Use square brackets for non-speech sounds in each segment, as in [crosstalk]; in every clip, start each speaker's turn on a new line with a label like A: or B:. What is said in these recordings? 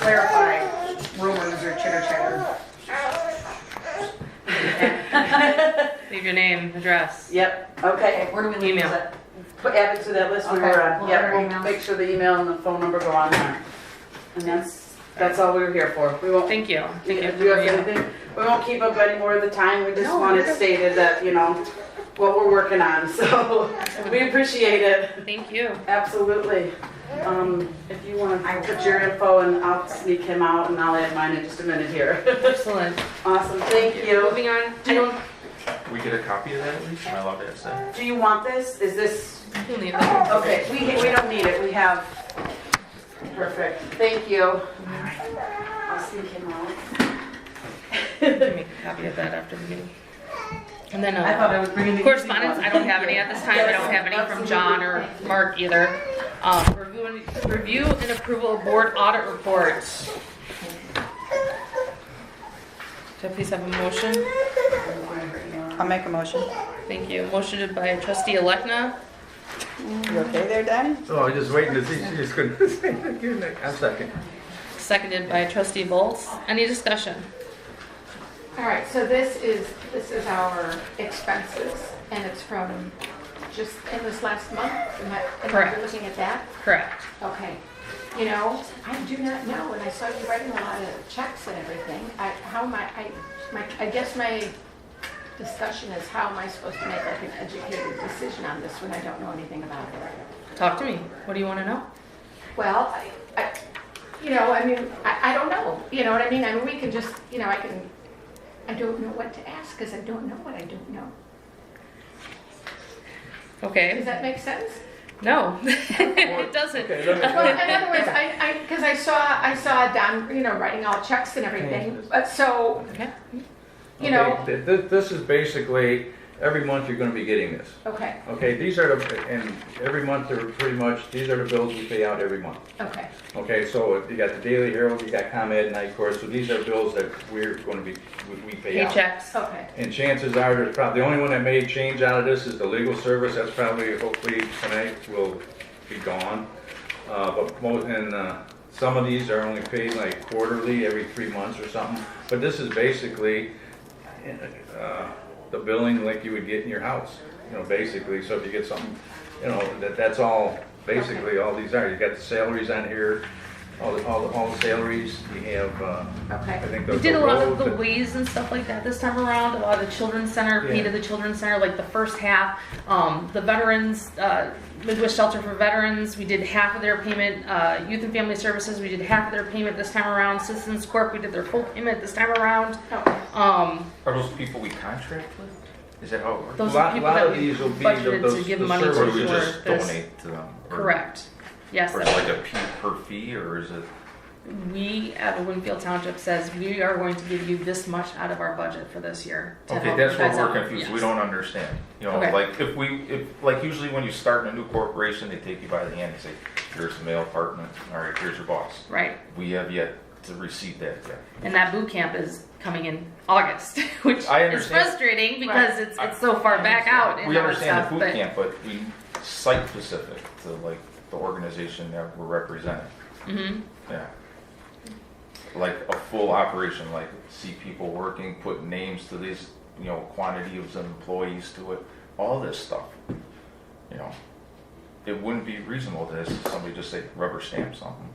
A: clarify rumors or chitter chatter.
B: Leave your name, address.
C: Yep, okay.
D: Okay, where do we leave
B: Email.
D: that?
C: Put, add it to that list we
D: Okay,
C: were on.
D: we'll
C: Yep,
D: add our
C: we'll
D: emails.
C: make sure the email and the phone number go on there. And that's, that's all we were here for. We won't,
B: Thank you.
C: do
B: Thank you.
C: you have
B: for reading.
C: anything? We won't keep up any more of the time. We just
B: No,
C: want
B: we're
C: it
B: good.
C: stated that, you know, what we're working on. [laughs] So we appreciate it.
B: Thank you.
C: Absolutely. Um, if you want
D: I
C: to
D: will.
C: put your info and I'll sneak him out and I'll add mine in just a minute here. [laughs]
B: Excellent.
C: Awesome, thank you.
B: Moving on. I don't.
E: We get a copy of that at least? Am I allowed to ask that?
C: Do you want this? Is this,
B: We'll leave that.
C: okay, we, we don't need it, we have. Perfect, thank you. I'll sneak him out.
B: Give me a copy of that after the meeting. And then
C: I
B: uh,
C: thought I was bringing the.
B: correspondence. I don't have any at this time. I don't have any from John or Mark either. Um, review, and, review and approval of board audit reports. Do I please have a motion?
F: I'll make a motion.
B: Thank you. Motioned by trustee Elekna.
F: You okay there, Donnie?
E: Oh, I was just waiting to see, she just couldn't [laughs] say it again. I'm second.
B: Seconded by trustee Bolts. Any discussion?
G: All right, so this is, this is our expenses, and it's from just in this last month? Am I- am I
B: Correct.
G: Looking at that?
B: Correct.
G: Okay. You know, I do not know, and I saw you writing a lot of checks and everything. I, how am I, I, my, I guess my discussion is how am I supposed to make like an educated decision on this when I don't know anything about it?
B: Talk to me. What do you want to know?
G: Well, I, I, you know, I mean, I, I don't know, you know what I mean? I mean, we can just, you know, I can, I don't know what to ask because I don't know what I don't know. Does
B: Okay.
G: that make sense?
B: No, [laughs] it doesn't.
E: Okay, let me-
G: Well, in other words, I, I, because I saw, I saw Don, you know, writing all checks and everything, but so,
B: Okay.
G: you know,
E: Okay, th- th- This is basically, every month you're gonna be getting this.
G: okay,
E: Okay, these are the, and every month they're pretty much, these are the bills we pay out every month.
G: okay,
E: Okay, so you got the Daily Herald, you got ComEd, Night Course, so these are bills that we're gonna be, we- we pay
B: Pay
E: out.
B: checks.
G: okay,
E: And chances are, there's probably, the only one that may change out of this is the legal service, that's probably, hopefully tonight will be gone. Uh, but most, and, uh, some of these are only paid like quarterly, every three months or something, but this is basically, uh, the billing like you would get in your house, you know, basically, so if you get something, you know, that, that's all, basically, all these are, you got the salaries on here, all, the- all, the- all the salaries, you have, uh, I
G: okay.
E: think the.
B: We did a lot of
E: road,
B: the ways and stuff like that this time around. A lot of the children's center, paid to
E: Yeah.
B: the children's center, like the first half. Um, the veterans, uh, Midwest Shelter for Veterans, we did half of their payment. Uh, Youth and Family Services, we did half of their payment this time around. Citizens Corp, we did their full payment this time around.
G: Oh,
B: Um,
E: Are those people we contract with? Is that how it works?
B: those
E: A
B: are
E: lot-
B: the people
E: lot
B: that
E: of
B: we
E: these will be the-
B: budgeted to
E: those-
B: give
E: the
B: money to
E: servers
B: for
E: we just
B: this.
H: donate to them? or-
B: Correct. Yes,
H: Or is it like a fee per fee, or is it?
B: we at Winfield Township says we are going to give you this much out of our budget for this year. to
H: Okay,
B: help
H: that's
B: you
H: where
B: guys
H: we're
B: out.
H: confused, we
B: Yes.
H: don't understand. You know,
B: Okay.
H: like, if we, if, like, usually when you start in a new corporation, they take you by the hand and say, here's the mail department, all right, here's your boss.
B: Right.
H: We have yet to receive that yet.
B: And that boot camp is coming in August, [laughs] which
H: I
B: is
H: understand.
B: frustrating because
G: Right.
B: it's, it's so far back out. and
H: We
B: all that
H: understand
B: stuff,
H: the boot
B: but-
H: camp, but we site specific to like the organization that we're representing.
B: Mhm.
H: Yeah. Like a full operation, like see people working, put names to these, you know, quantity of employees to it, all this stuff. You know, it wouldn't be reasonable to just- somebody just say rubber stamp something.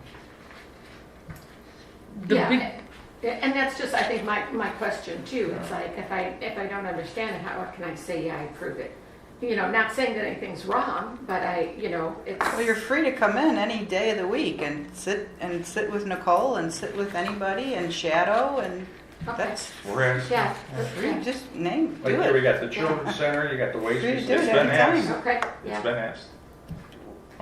B: The
G: Yeah,
B: boot-
G: and- and that's just, I think, my, my question too. It's like, if I, if I don't understand it, how can I say, yeah, I approve it? You know, not saying that anything's wrong, but I, you know, it's.
F: Well, you're free to come in any day of the week and sit, and sit with Nicole and sit with anybody and shadow and
G: Okay.
F: that's,
E: We're asking.
G: Yeah.
F: free. just name,
E: Like
F: do
E: here, we
F: it.
E: got the children's center,
F: [laughs]
E: you got the waste.
F: Free to do
E: it's
F: it
E: been
F: every
E: asked.
F: time.
G: Okay,
H: It's
G: yeah.
H: been asked.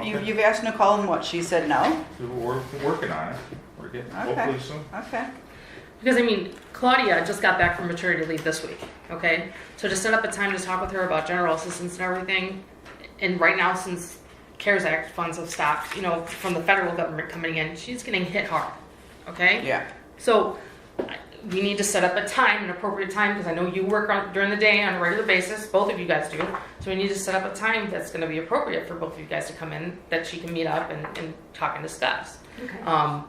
F: You-
H: Okay.
F: You've asked Nicole and what, she said no?
H: We're working on it. We're getting,
F: Okay.
H: hopefully soon.
F: Okay.
B: Because I mean, Claudia just got back from maternity leave this week, okay? So to set up a time to talk with her about general assistance and everything, and right now since CARES Act funds have stopped, you know, from the federal government coming in, she's getting hit hard, okay?
F: Yeah.
B: So I- we need to set up a time, an appropriate time, because I know you work on, during the day on a regular basis, both of you guys do. So we need to set up a time that's gonna be appropriate for both of you guys to come in, that she can meet up and, and talk and discuss.
G: Okay.
B: Um,